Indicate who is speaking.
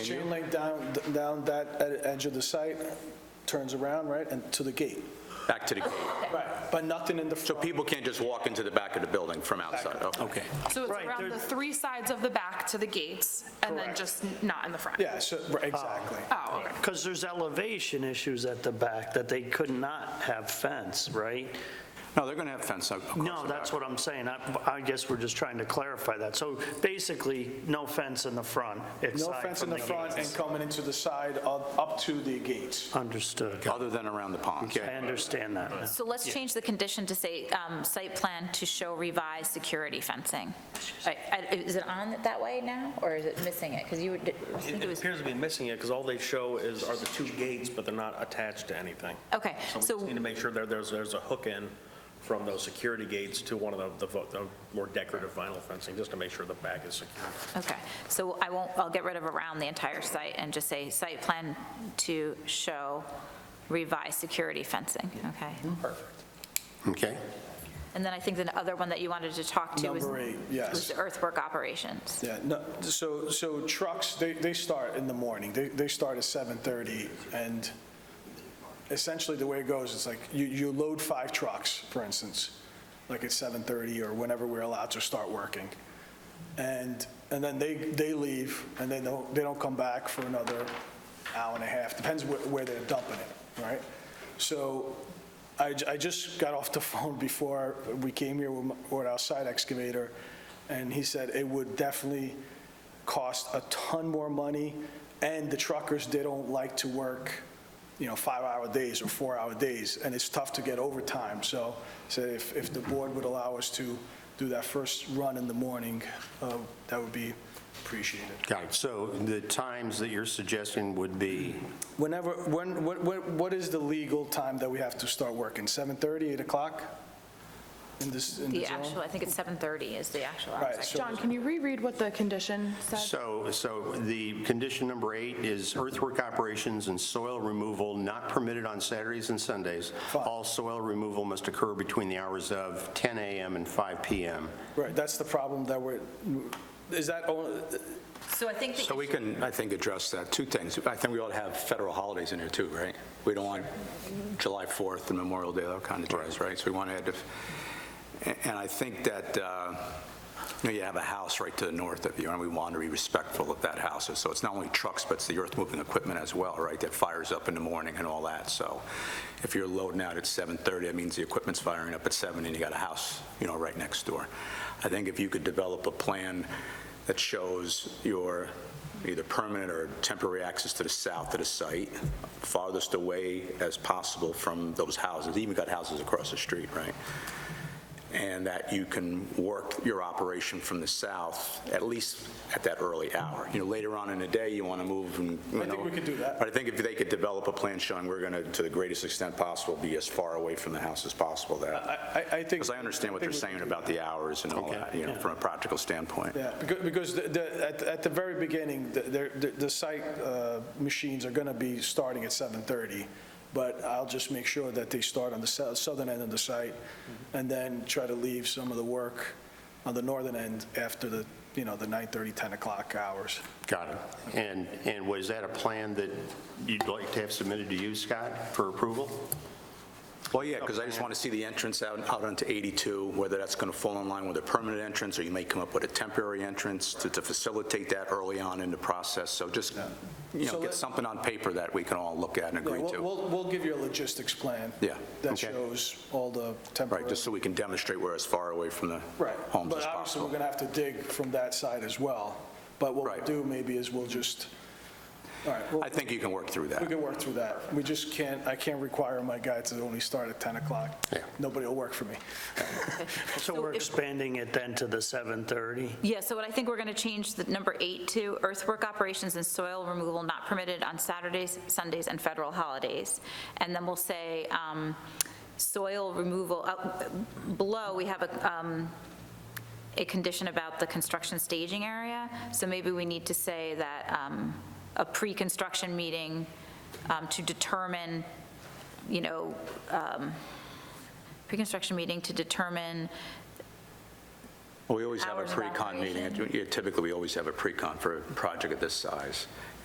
Speaker 1: Chain link down, down that ed- edge of the site, turns around, right, and to the gate.
Speaker 2: Back to the gate.
Speaker 1: Right. But nothing in the
Speaker 2: So
Speaker 1: front.
Speaker 2: people can't just walk into the back of the building from outside? Okay.
Speaker 3: So it's
Speaker 4: Right,
Speaker 3: around
Speaker 4: there-
Speaker 3: the three sides of the back to the gates, and then just n- not in the front?
Speaker 1: Yeah, so, right, exactly.
Speaker 3: Oh, okay.
Speaker 4: Because there's elevation issues at the back that they could not have fence, right?
Speaker 2: No, they're going to have fence uh, across the
Speaker 4: No, that's
Speaker 2: back.
Speaker 4: what I'm saying. I I guess we're just trying to clarify that. So basically, no fence in the front,
Speaker 1: No
Speaker 4: aside
Speaker 1: fence in
Speaker 4: from
Speaker 1: the
Speaker 4: the
Speaker 1: front and
Speaker 4: gates.
Speaker 1: coming into the side, up up to the gates.
Speaker 4: Understood.
Speaker 2: Other than around the pond.
Speaker 4: I understand that now.
Speaker 5: So let's change the condition to say, um, site plan to show revised security fencing. I- I- Is it on it that way now, or is it missing it? Because you would, I think
Speaker 6: It
Speaker 5: it
Speaker 6: it
Speaker 5: was,
Speaker 6: appears to be missing it, because all they show is, are the two gates, but they're not attached to anything.
Speaker 5: okay,
Speaker 6: So we just
Speaker 5: so,
Speaker 6: need to make sure that there's, there's a hook in from those security gates to one of the- the, vo- the more decorative vinyl fencing, just to make sure the back is secure.
Speaker 5: okay. So I won't, I'll get rid of around the entire site and just say, site plan to show revised security fencing, okay?
Speaker 1: Mm-hmm.
Speaker 7: Okay.
Speaker 5: And then I think the other one that you wanted to talk to was.
Speaker 1: Number eight, yes.
Speaker 5: Was the earthwork operations.
Speaker 1: Yeah, no, so, so trucks, they, they start in the morning. They, they start at 7:30, and essentially, the way it goes, it's like, you, you load five trucks, for instance, like at 7:30 or whenever we're allowed to start working. And, and then they, they leave, and they don't, they don't come back for another hour and a half, depends where, where they're dumping it, right? So I, j- I just got off the phone before we came here with my- with our site excavator, and he said it would definitely cost a ton more money, and the truckers, they don't like to work, you know, five-hour days or four-hour days, and it's tough to get overtime. So, so if, if the board would allow us to do that first run in the morning, uh, that would be appreciated.
Speaker 7: Got it. So the times that you're suggesting would be,
Speaker 1: Whenever, when, what, what what is the legal time that we have to start working? 7:30, 8 o'clock in this, in
Speaker 5: The
Speaker 1: this zone?
Speaker 5: actual, I think it's 7:30 is the actual.
Speaker 1: Right,
Speaker 5: hours.
Speaker 1: so-
Speaker 3: John, can you reread what the condition said?
Speaker 7: so, so the condition number eight is earthwork operations and soil removal not permitted on Saturdays and Sundays. All soil removal must occur between the hours of 10 a.m. and 5 p.m.
Speaker 1: Right, that's the problem that we're, is that, only-
Speaker 5: So I think, the-
Speaker 2: So we can, I think, address that. Two things. I think we ought to have federal holidays in here too, right? We don't want July 4th and Memorial Day, that kind of jazz, right? So we want to add, the- and I think that, uh, you know, you have a house right to the north of you, and we want to be respectful of that house. So it's not only trucks, but it's the earth-moving equipment as well, right? That fires up in the morning and all that. So if you're loading out at 7:30, that means the equipment's firing up at 7, and you got a house, you know, right next door. I think if you could develop a plan that shows your either permanent or temporary access to the south of the site, farthest away as possible from those houses, even got houses across the street, right? And that you can work your operation from the south, at least at that early hour. You know, later on in the day, you want to move and, you know.
Speaker 1: I think we could do that.
Speaker 2: But I think if they could develop a plan showing we're going to, to the greatest extent possible, be as far away from the house as possible, that,
Speaker 1: I, I- I think.
Speaker 2: because I understand what they're saying about the hours and all that, you know, from a practical standpoint.
Speaker 1: Yeah, becau- because the- the, at, at the very beginning, the- the, the- the site uh, machines are going to be starting at 7:30, but I'll just make sure that they start on the sou- southern end of the site, and then try to leave some of the work on the northern end after the, you know, the 9:30, 10 o'clock hours.
Speaker 7: Got it. And, and was that a plan that you'd like to have submitted to you, Scott, for approval?
Speaker 2: Well, yeah, because I just want to see the entrance out, out onto 82, whether that's going to fall in line with a permanent entrance, or you may come up with a temporary entrance to, to facilitate that early on in the process. So just, you
Speaker 1: So
Speaker 2: know,
Speaker 1: let-
Speaker 2: get something on paper that we can all look at and
Speaker 1: Yeah,
Speaker 2: agree
Speaker 1: we'll-
Speaker 2: to.
Speaker 1: We'll, we'll give you a logistics plan.
Speaker 2: Yeah,
Speaker 1: That
Speaker 2: okay.
Speaker 1: shows all the temporary.
Speaker 2: Right, just so we can demonstrate we're as far away from the
Speaker 1: Right,
Speaker 2: homes
Speaker 1: but
Speaker 2: as
Speaker 1: obviously, we're
Speaker 2: possible.
Speaker 1: going to have to dig from that side as well. But what we'll
Speaker 2: Right.
Speaker 1: do maybe is we'll just, all right, we'll-
Speaker 2: I think you can work through
Speaker 1: we
Speaker 2: that.
Speaker 1: can work through that. We just can't, I can't require my guy to only start at 10 o'clock.
Speaker 7: Yeah.
Speaker 1: Nobody will work for me.
Speaker 4: So we're expanding it then to the 7:30?
Speaker 5: yeah, so what I think we're going to change the number eight to earthwork operations and soil removal not permitted on Saturdays, Sundays, and federal holidays. And then we'll say um, soil removal, uh, below, we have a, um, a condition about the construction staging area. So maybe we need to say that um, a pre-construction meeting um, to determine, you know, um, pre-construction meeting to determine
Speaker 2: We always have a
Speaker 5: Hours of
Speaker 2: pre-con meeting.
Speaker 5: operation.
Speaker 2: Yeah, Typically, we always have a pre-con for a project of this size.